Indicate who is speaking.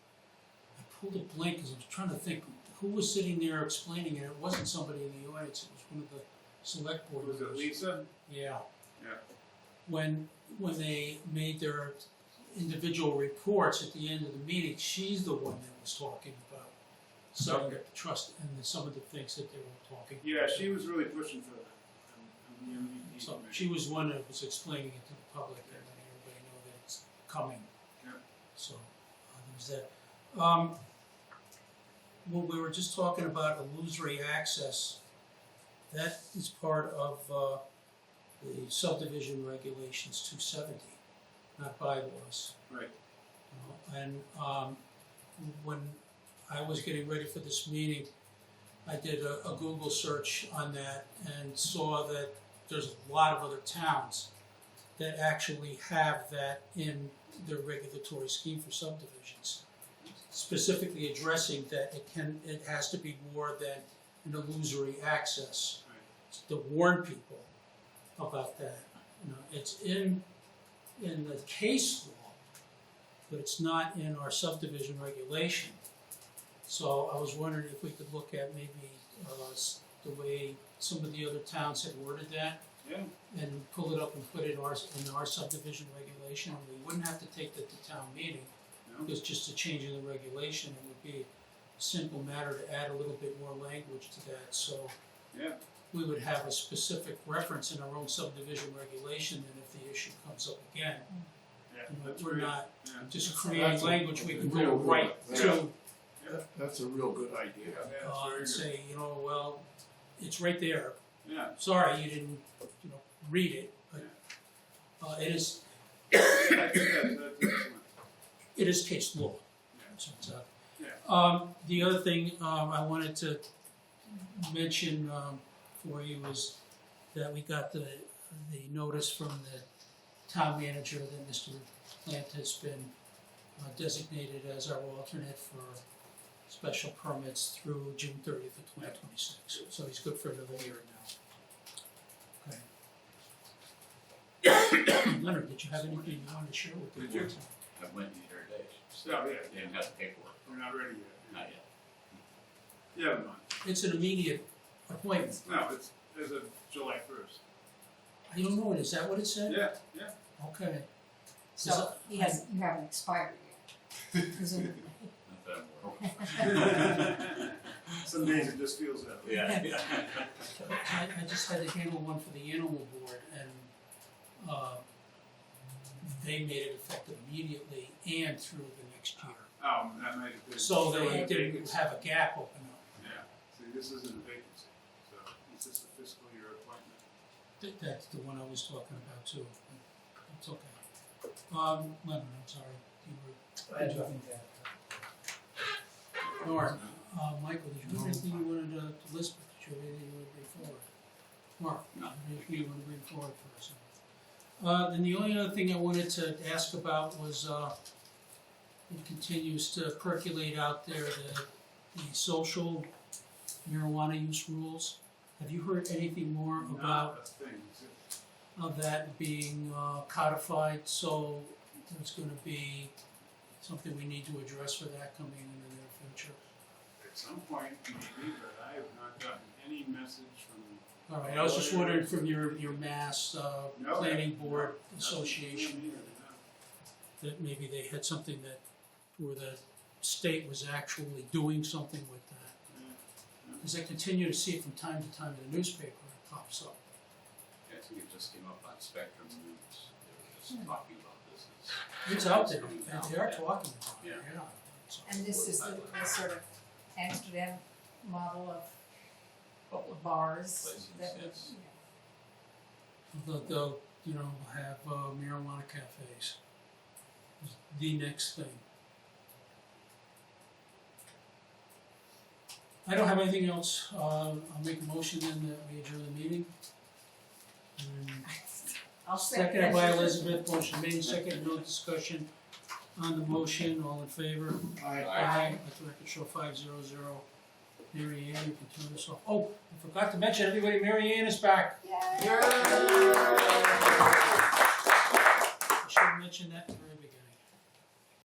Speaker 1: pulled a blank because I was trying to think who was sitting there explaining it. It wasn't somebody in the audience. It was one of the select board
Speaker 2: Was it
Speaker 1: members.
Speaker 2: Lisa?
Speaker 1: Yeah.
Speaker 2: Yeah.
Speaker 1: When, when they made their individual reports at the end of the meeting, she's the one that was talking about some of the trust and the- some of the things that they were talking.
Speaker 2: Yeah, she was really pushing for that. um, um, the MVP
Speaker 1: So
Speaker 2: committee.
Speaker 1: she was one that was explaining it to the public and letting everybody know that it's coming.
Speaker 2: Yeah.
Speaker 1: So, uh, there's that. Um, well, we were just talking about illusory access. That is part of, uh, the subdivision regulations two seventy, not bylaws.
Speaker 2: Right.
Speaker 1: You know, And, um, when I was getting ready for this meeting, I did a, a Google search on that and saw that there's a lot of other towns that actually have that in their regulatory scheme for subdivisions. Specifically addressing that it can, it has to be more than an illusory access. To warn people about that, you know, it's in, in the case law, but it's not in our subdivision regulation. So I was wondering if we could look at maybe, uh, s- the way some of the other towns had worded that
Speaker 2: Yeah,
Speaker 1: and pull it up and put it in our, in our subdivision regulation, and we wouldn't have to take that to town meeting,
Speaker 2: no,
Speaker 1: because just a change in the regulation, it would be a simple matter to add a little bit more language to that, so
Speaker 2: yeah,
Speaker 1: we would have a specific reference in our own subdivision regulation, and if the issue comes up again,
Speaker 2: yeah,
Speaker 1: you know,
Speaker 2: that's
Speaker 1: we're
Speaker 2: great.
Speaker 1: not
Speaker 2: Yeah.
Speaker 1: just
Speaker 3: That's-
Speaker 1: creating
Speaker 3: that's a-
Speaker 1: language we can go
Speaker 3: real good.
Speaker 1: right
Speaker 2: Yeah.
Speaker 1: to,
Speaker 3: That- That's a real good idea.
Speaker 2: Yeah,
Speaker 1: uh, and
Speaker 2: it's very
Speaker 1: say, you know, well, it's right there,
Speaker 2: good. Yeah,
Speaker 1: sorry, you didn't, you know, read it, but, uh, it is,
Speaker 2: I think that, that's excellent.
Speaker 1: it is case law.
Speaker 2: Yeah.
Speaker 1: So it's, uh,
Speaker 2: Yeah.
Speaker 1: Um, the other thing, um, I wanted to mention, um, for you was that we got the, the notice from the town manager that Mr. Plant has been uh, designated as our alternate for special permits through June thirtieth of twenty twenty-six. So he's good for another year now. Okay. Leonard, did you have anything you wanted to share with the
Speaker 4: Did you?
Speaker 1: board?
Speaker 4: I went in there today.
Speaker 2: So, yeah,
Speaker 4: They haven't got the paperwork,
Speaker 2: we're not ready yet.
Speaker 4: not yet.
Speaker 2: Yeah, never mind.
Speaker 1: It's an immediate appointment.
Speaker 2: No, it's, as of July first.
Speaker 1: I don't know, is that what it said?
Speaker 2: Yeah, yeah,
Speaker 1: Okay.
Speaker 5: So he has, you haven't expired yet, presumably.
Speaker 4: Not that I'm aware
Speaker 2: some days it just feels that
Speaker 4: of.
Speaker 2: way.
Speaker 4: Yeah, yeah.
Speaker 1: I, I just had to handle one for the animal board and, uh, they made it effective immediately and through the next year.
Speaker 2: Um, that might have been.
Speaker 1: So they
Speaker 2: filling the
Speaker 1: didn't
Speaker 2: vacancy.
Speaker 1: have a gap open up.
Speaker 2: Yeah, see, this isn't a vacancy, so it's just a fiscal year appointment.
Speaker 1: That, that's the one I was talking about too. It's okay. Um, Leonard, I'm sorry, you were. I had nothing Nora, uh, Michael, did you have anything you wanted to, to list, did you have anything you wanted to bring forward? Mark,
Speaker 4: No.
Speaker 1: anything you want to bring forward for us? Uh, then the only other thing I wanted to ask about was, uh, it continues to percolate out there, the, the social marijuana use rules. Have you heard anything more about
Speaker 2: Not a thing, is it?
Speaker 1: of that being uh, codified, so there's gonna be something we need to address for that coming in the near future.
Speaker 2: At some point, maybe, but I have not gotten any message from.
Speaker 1: All right, I was just wondering from your, your mass uh,
Speaker 2: No.
Speaker 1: planning board
Speaker 2: Yeah,
Speaker 1: association, that maybe they had something that, where the state was actually doing something with that.
Speaker 2: yeah,
Speaker 1: Because I continue to see it from time to time in the newspaper, it pops up.
Speaker 4: I think it just came up on Spectrum News. They were just talking about this. It's-
Speaker 1: It's out there, and they are talking about it,
Speaker 4: Yeah.
Speaker 1: yeah. So-
Speaker 5: And this is the, the sort of Amsterdam model of
Speaker 4: Public
Speaker 5: bars
Speaker 4: places,
Speaker 5: that we, you know.
Speaker 4: yes.
Speaker 1: They'll, they'll, you know, have uh, marijuana cafes. It's The next thing. I don't have anything else. Uh, I'll make a motion then that we adjourn the meeting. And
Speaker 5: I'll second
Speaker 1: Seconded by
Speaker 5: that.
Speaker 1: Elizabeth, motion made, second, no discussion on the motion, all in favor?
Speaker 3: I-
Speaker 1: Aye. Let the record show five zero zero. Mary Ann, you can turn this off. Oh, I forgot to mention, everybody, Mary Ann is back.
Speaker 5: Yay.
Speaker 1: I should mention that to her